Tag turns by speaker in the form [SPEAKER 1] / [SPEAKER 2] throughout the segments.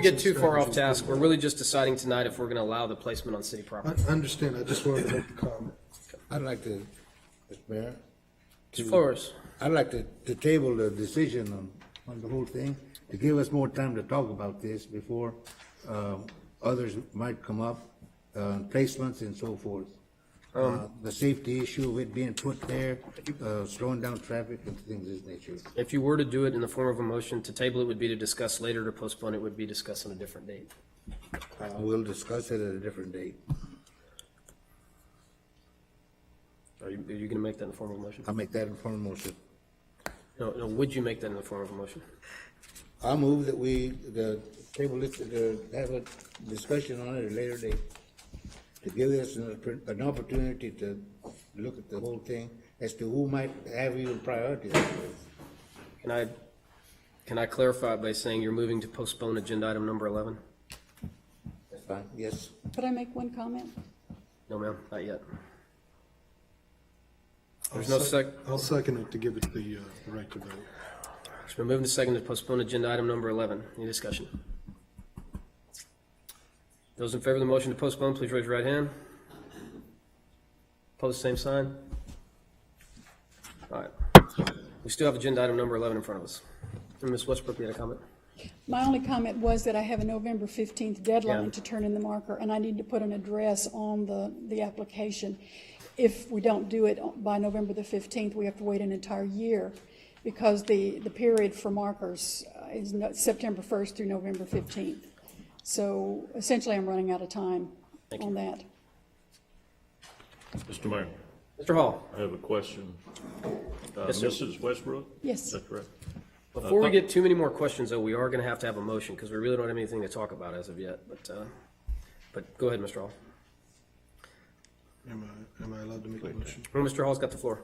[SPEAKER 1] get too far off task. We're really just deciding tonight if we're going to allow the placement on city
[SPEAKER 2] I
[SPEAKER 1] property.
[SPEAKER 2] I understand, I just wanted to make a comment.
[SPEAKER 3] I'd like to, Mr. Mayor,
[SPEAKER 1] Flores,
[SPEAKER 3] I'd like to, to table the decision on, on the whole thing, to give us more time to talk about this before, um, others might come up, uh, placements and so forth. Uh, the safety issue of it being put there, uh, slowing down traffic and things of this nature.
[SPEAKER 1] if you were to do it in the form of a motion, to table it would be to discuss later, to postpone it would be discuss on a different date.
[SPEAKER 3] We'll discuss it at a different date.
[SPEAKER 1] Are you, are you going to make that in the form of a motion?
[SPEAKER 3] I'll make that informed motion.
[SPEAKER 1] No, no, would you make that in the form of a motion?
[SPEAKER 3] I move that we, the table it, to have a discussion on it at a later date. To give us an, oppor- an opportunity to look at the whole thing as to who might have even priority.
[SPEAKER 1] Can I, can I clarify by saying you're moving to postpone agenda item number 11?
[SPEAKER 3] That's fine, yes.
[SPEAKER 4] Could I make one comment?
[SPEAKER 1] No, ma'am, not yet.
[SPEAKER 2] I'll
[SPEAKER 1] There's no sec,
[SPEAKER 2] I'll second it to give it the uh, the right to vote.
[SPEAKER 1] it's been moved and seconded to postpone agenda item number 11. Any discussion? Those in favor of the motion to postpone, please raise your right hand. Opposed, same sign. All right. We still have agenda item number 11 in front of us. And Ms. Westbrook, you had a comment?
[SPEAKER 4] My only comment was that I have a November 15th deadline
[SPEAKER 1] Yeah.
[SPEAKER 4] to turn in the marker, and I need to put an address on the, the application. If we don't do it by November the 15th, we have to wait an entire year because the, the period for markers uh, is no- September 1st through November 15th. So essentially, I'm running out of time on that.
[SPEAKER 5] Mr. Mayor,
[SPEAKER 1] Mr. Hall?
[SPEAKER 5] I have a question. Uh,
[SPEAKER 1] Yes, sir.
[SPEAKER 5] Mrs. Westbrook?
[SPEAKER 4] Yes.
[SPEAKER 5] Is that correct?
[SPEAKER 1] Before we get too many more questions, though, we are going to have to have a motion because we really don't have anything to talk about as of yet. But, uh, but go ahead, Mr. Hall.
[SPEAKER 2] Am I, am I allowed to make a motion?
[SPEAKER 1] Well, Mr. Hall's got the floor.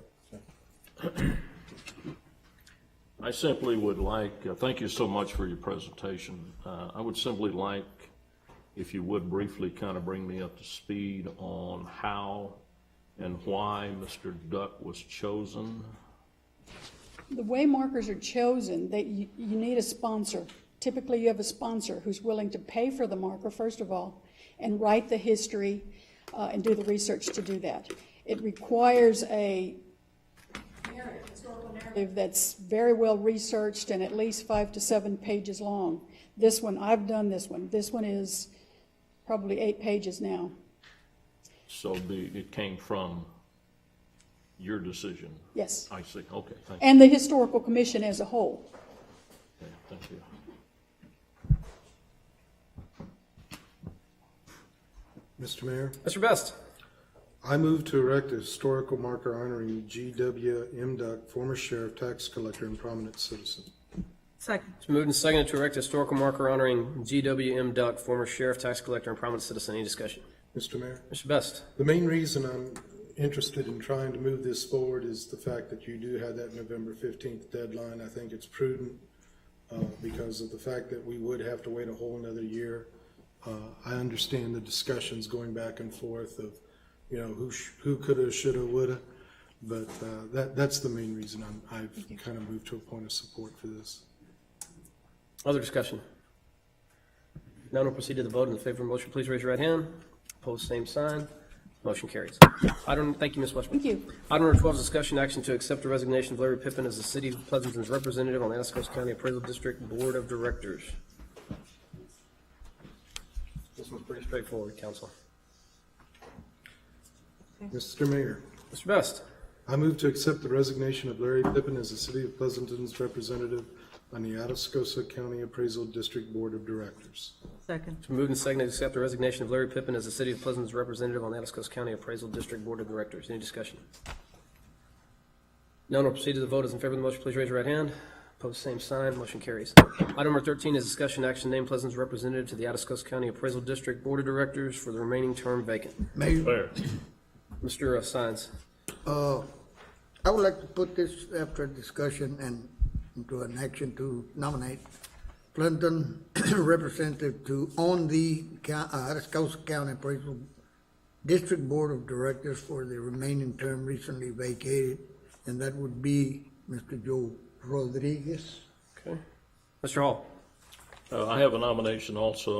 [SPEAKER 5] I simply would like, uh, thank you so much for your presentation. Uh, I would simply like, if you would briefly kind of bring me up to speed on how and why Mr. Duck was chosen.
[SPEAKER 4] The way markers are chosen, that you, you need a sponsor. Typically, you have a sponsor who's willing to pay for the marker, first of all, and write the history, uh, and do the research to do that. It requires a narrative, historical narrative that's very well researched and at least five to seven pages long. This one, I've done this one. This one is probably eight pages now.
[SPEAKER 5] So the, it came from your decision?
[SPEAKER 4] Yes.
[SPEAKER 5] I see, okay, thank you,
[SPEAKER 4] And the historical commission as a whole.
[SPEAKER 5] Okay, thank you.
[SPEAKER 2] Mr. Mayor,
[SPEAKER 1] Mr. Best?
[SPEAKER 2] I move to erect a historical marker honoring G.W. M. Duck, former sheriff, tax collector, and prominent citizen.
[SPEAKER 6] Second.
[SPEAKER 1] It's been moved and seconded to erect a historical marker honoring G.W.M. Duck, former sheriff, tax collector, and prominent citizen. Any discussion?
[SPEAKER 2] Mr. Mayor,
[SPEAKER 1] Mr. Best?
[SPEAKER 2] the main reason I'm interested in trying to move this forward is the fact that you do have that November 15th deadline. I think it's prudent uh, because of the fact that we would have to wait a whole another year. Uh, I understand the discussions going back and forth of, you know, who, sh- who coulda, shoulda, woulda. But uh, that, that's the main reason I'm, I've kind of moved to a point of support for this.
[SPEAKER 1] Other discussion? Now we'll proceed to the vote. In favor of the motion, please raise your right hand. Opposed, same sign. Motion carries. Item, thank you, Ms. Westbrook.
[SPEAKER 4] Thank you.
[SPEAKER 1] Item number 12 is discussion action to accept the resignation of Larry Pippin as the City of Pleasanton's representative on the Anacostia County Appraisal District Board of Directors. This one's pretty straightforward, council.
[SPEAKER 2] Mr. Mayor.
[SPEAKER 1] Mr. Best?
[SPEAKER 2] I move to accept the resignation of Larry Pippin as the City of Pleasanton's representative on the Atascosa County Appraisal District Board of Directors.
[SPEAKER 6] Second.
[SPEAKER 1] It's been moved and seconded to accept the resignation of Larry Pippin as the City of Pleasanton's representative on the Anacostia County Appraisal District Board of Directors. Any discussion? None will proceed to the vote. As in favor of the motion, please raise your right hand. Opposed, same sign. Motion carries. Item number 13 is discussion action name Pleasanton's representative to the Atascosa County Appraisal District Board of Directors for the remaining term vacant.
[SPEAKER 3] Mayor,
[SPEAKER 5] Mayor,
[SPEAKER 1] Mr. Sines,
[SPEAKER 7] Uh, I would like to put this after discussion and into an action to nominate Clinton representative to on the Cou- uh, Atascosa County Appraisal District Board of Directors for the remaining term recently vacated, and that would be Mr. Joe Rodriguez.
[SPEAKER 1] okay. Mr. Hall,
[SPEAKER 5] Uh, I have a nomination also